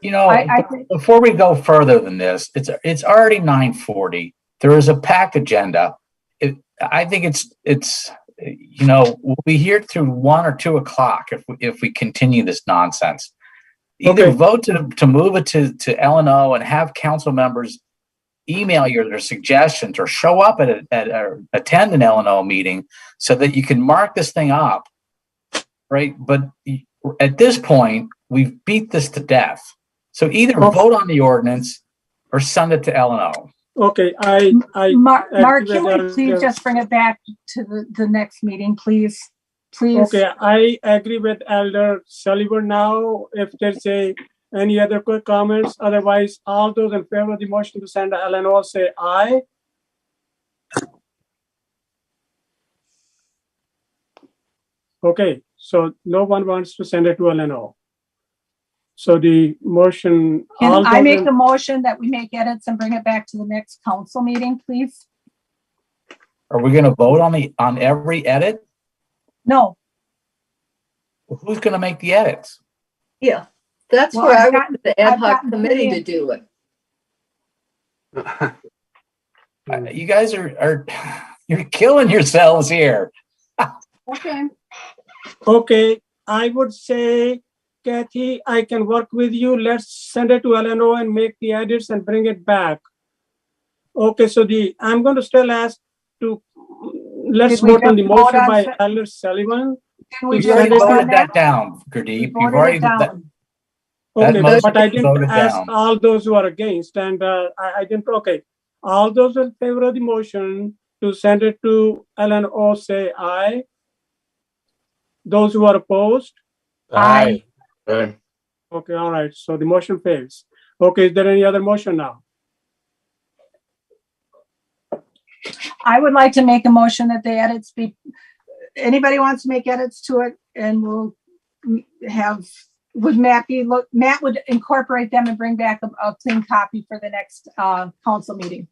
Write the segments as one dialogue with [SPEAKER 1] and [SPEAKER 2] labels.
[SPEAKER 1] You know,
[SPEAKER 2] I- I think-
[SPEAKER 1] before we go further than this, it's, it's already nine forty. There is a pack agenda. It, I think it's, it's, you know, we'll be here through one or two o'clock if, we- if we continue this nonsense. Either
[SPEAKER 3] Okay.
[SPEAKER 1] vote to, to move it to, to L and O and have council members email your, their suggestions or show up at, a- at, or attend an L and O meeting so that you can mark this thing up. Right? But y- at this point, we've beat this to death. So either
[SPEAKER 3] Okay.
[SPEAKER 1] vote on the ordinance or send it to L and O.
[SPEAKER 3] Okay, I, I,
[SPEAKER 2] Mark,
[SPEAKER 3] I
[SPEAKER 2] Mark,
[SPEAKER 3] think
[SPEAKER 2] can
[SPEAKER 3] that
[SPEAKER 2] we
[SPEAKER 3] is-
[SPEAKER 2] please
[SPEAKER 3] yes.
[SPEAKER 2] just bring it back to the, the next meeting, please? Please,
[SPEAKER 3] okay, I agree with Elder Sullivan now. If there's a, any other quick comments, otherwise, all those in favor of the motion to send to LNO, say aye. Okay, so no one wants to send it to LNO. So the motion. all
[SPEAKER 2] can I
[SPEAKER 3] those
[SPEAKER 2] make
[SPEAKER 3] in-
[SPEAKER 2] a motion that we make edits and bring it back to the next council meeting, please?
[SPEAKER 1] Are we gonna vote on the, on every edit?
[SPEAKER 2] No,
[SPEAKER 1] Who's gonna make the edits?
[SPEAKER 4] Yeah, that's
[SPEAKER 2] Well,
[SPEAKER 4] where
[SPEAKER 2] I've
[SPEAKER 4] I
[SPEAKER 2] gotten-
[SPEAKER 4] want the ad
[SPEAKER 2] I've
[SPEAKER 4] hoc
[SPEAKER 2] gotten
[SPEAKER 4] committee
[SPEAKER 2] plenty
[SPEAKER 4] to do it.
[SPEAKER 2] Hmm.
[SPEAKER 1] Uh, You guys are, are, you're killing yourselves here.
[SPEAKER 2] okay,
[SPEAKER 3] Okay, I would say Kathy, I can work with you. Let's send it to LNO and make the edits and bring it back. Okay, so the, I'm going to still ask to, let's
[SPEAKER 2] Did we
[SPEAKER 3] vote on the
[SPEAKER 2] just vote
[SPEAKER 3] motion
[SPEAKER 2] on
[SPEAKER 3] by
[SPEAKER 2] se-
[SPEAKER 3] Elder Sullivan.
[SPEAKER 2] can we
[SPEAKER 1] You've
[SPEAKER 3] We've
[SPEAKER 2] just
[SPEAKER 1] already
[SPEAKER 3] voted
[SPEAKER 2] vote
[SPEAKER 1] voted
[SPEAKER 2] on that?
[SPEAKER 1] that down,
[SPEAKER 2] We
[SPEAKER 1] Gurdeep. You've
[SPEAKER 2] voted
[SPEAKER 1] already,
[SPEAKER 2] it
[SPEAKER 1] that-
[SPEAKER 2] down.
[SPEAKER 1] That
[SPEAKER 3] Okay,
[SPEAKER 4] motion
[SPEAKER 3] but I
[SPEAKER 1] was
[SPEAKER 3] didn't
[SPEAKER 1] voted
[SPEAKER 3] ask
[SPEAKER 1] down.
[SPEAKER 3] all those who are against and uh, I, I didn't, okay. All those in favor of the motion to send it to LNO, say aye. Those who are opposed?
[SPEAKER 2] Aye.
[SPEAKER 5] Aye.
[SPEAKER 3] Okay, all right, so the motion fails. Okay, is there any other motion now?
[SPEAKER 2] I would like to make a motion that the edits be, anybody wants to make edits to it and we'll mm, have, would Matt be, look, Matt would incorporate them and bring back a, a clean copy for the next, uh, council meeting.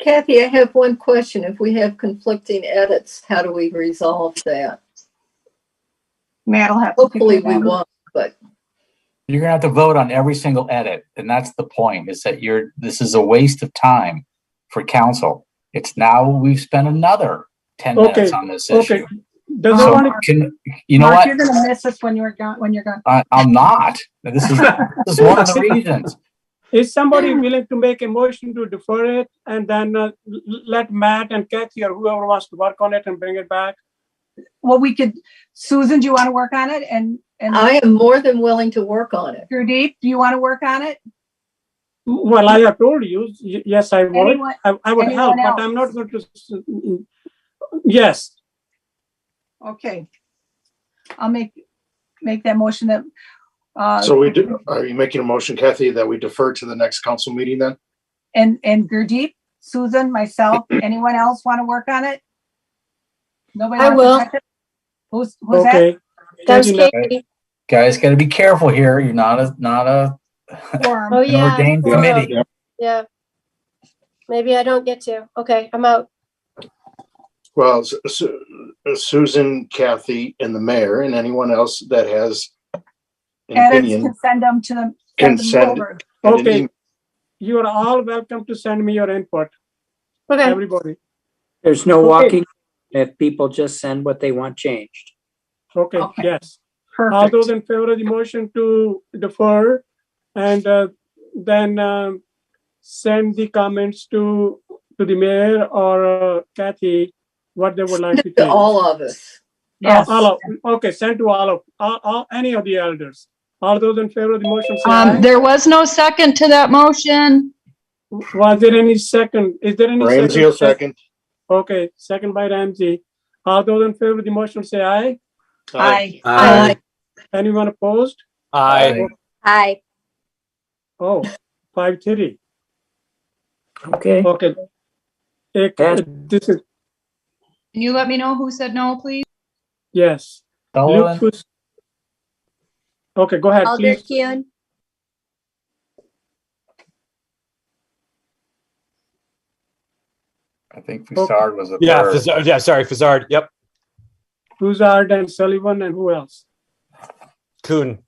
[SPEAKER 4] Kathy, I have one question. If we have conflicting edits, how do we resolve that?
[SPEAKER 2] Matt will have. to figure
[SPEAKER 4] Hopefully
[SPEAKER 2] it
[SPEAKER 4] we
[SPEAKER 2] out.
[SPEAKER 4] won't.
[SPEAKER 1] you're gonna have to vote on every single edit. And that's the point, is that you're, this is a waste of time for council. It's now, we've spent another ten
[SPEAKER 3] Okay,
[SPEAKER 1] minutes on this
[SPEAKER 3] Okay,
[SPEAKER 1] issue.
[SPEAKER 3] does
[SPEAKER 2] So-
[SPEAKER 3] anyone,
[SPEAKER 1] So can, you know
[SPEAKER 2] Mark,
[SPEAKER 1] what?
[SPEAKER 2] You're gonna miss us when you're gone, when you're gone.
[SPEAKER 1] I, I'm not. This is, this is one of the reasons.
[SPEAKER 3] is somebody willing to make a motion to defer it and then uh, l- l- let Matt and Kathy or whoever wants to work on it and bring it back?
[SPEAKER 2] Well, we could, Susan, do you want to work on it? And, and
[SPEAKER 4] I am more than willing to work on it.
[SPEAKER 2] Gurdeep, do you want to work on it?
[SPEAKER 3] Well, I have told you, y- yes, I would,
[SPEAKER 2] Anyone?
[SPEAKER 3] I I would help,
[SPEAKER 2] anyone
[SPEAKER 3] but I'm
[SPEAKER 2] else?
[SPEAKER 3] not going to, s- mm, yes,
[SPEAKER 2] Okay. I'll make, make that motion that, uh,
[SPEAKER 5] So we do, are you making a motion, Kathy, that we defer to the next council meeting then?
[SPEAKER 2] and, and Gurdeep, Susan, myself, anyone else want to work on it? Nobody?
[SPEAKER 6] I
[SPEAKER 2] wants to
[SPEAKER 6] will.
[SPEAKER 2] touch it? Who's, who's that?
[SPEAKER 3] okay.
[SPEAKER 6] That was
[SPEAKER 3] Kathy, let-
[SPEAKER 6] Katie.
[SPEAKER 1] Guys, gotta be careful here. You're not a, not a
[SPEAKER 2] Quorum.
[SPEAKER 6] Oh,
[SPEAKER 1] an
[SPEAKER 6] yeah.
[SPEAKER 1] ordained
[SPEAKER 6] forum.
[SPEAKER 1] committee.
[SPEAKER 6] Yeah. Maybe I don't get to. Okay, I'm out.
[SPEAKER 5] Well, Su- Su- Susan, Kathy, and the mayor, and anyone else that has an
[SPEAKER 2] Edits can
[SPEAKER 5] opinion.
[SPEAKER 2] send them to them.
[SPEAKER 5] Can
[SPEAKER 2] them
[SPEAKER 5] send-
[SPEAKER 2] over.
[SPEAKER 5] and an
[SPEAKER 3] Okay.
[SPEAKER 5] email.
[SPEAKER 3] You are all welcome to send me your input,
[SPEAKER 6] Okay,
[SPEAKER 3] everybody,
[SPEAKER 7] There's no
[SPEAKER 3] Okay.
[SPEAKER 7] walking if people just send what they want changed.
[SPEAKER 3] okay,
[SPEAKER 2] Okay.
[SPEAKER 3] yes. All those
[SPEAKER 2] Perfect.
[SPEAKER 3] in favor of the motion to defer and uh, then um, send the comments to, to the mayor or uh, Kathy, what they would like to
[SPEAKER 4] To
[SPEAKER 3] change. All,
[SPEAKER 4] all of us.
[SPEAKER 2] Yes.
[SPEAKER 3] all of, okay, send to all of, all, all, any of the elders. All those in favor of the motion, say
[SPEAKER 8] Um,
[SPEAKER 3] aye.
[SPEAKER 8] there was no second to that motion.
[SPEAKER 3] Was there any second? Is there any?
[SPEAKER 5] Ramsey will second.
[SPEAKER 3] Okay, second by Ramsey. All those in favor of the motion, say aye.
[SPEAKER 2] Aye.
[SPEAKER 4] Aye.
[SPEAKER 3] Anyone opposed?
[SPEAKER 1] Aye.
[SPEAKER 6] hi.
[SPEAKER 3] Oh, five thirty.
[SPEAKER 7] Okay.
[SPEAKER 3] Okay. Eh,
[SPEAKER 7] Yes.
[SPEAKER 3] This is,
[SPEAKER 8] Can you let me know who said no, please?
[SPEAKER 3] yes. Luke,
[SPEAKER 1] Sullivan,
[SPEAKER 3] who's- Okay, go ahead,
[SPEAKER 6] Alder
[SPEAKER 3] please.
[SPEAKER 6] Kuhn,
[SPEAKER 1] I think Fusard was a
[SPEAKER 9] Yeah,
[SPEAKER 1] third.
[SPEAKER 9] Fazard, yeah, sorry, Fazard. Yep,
[SPEAKER 3] Broussard and Sullivan and who else?
[SPEAKER 9] Kuhn.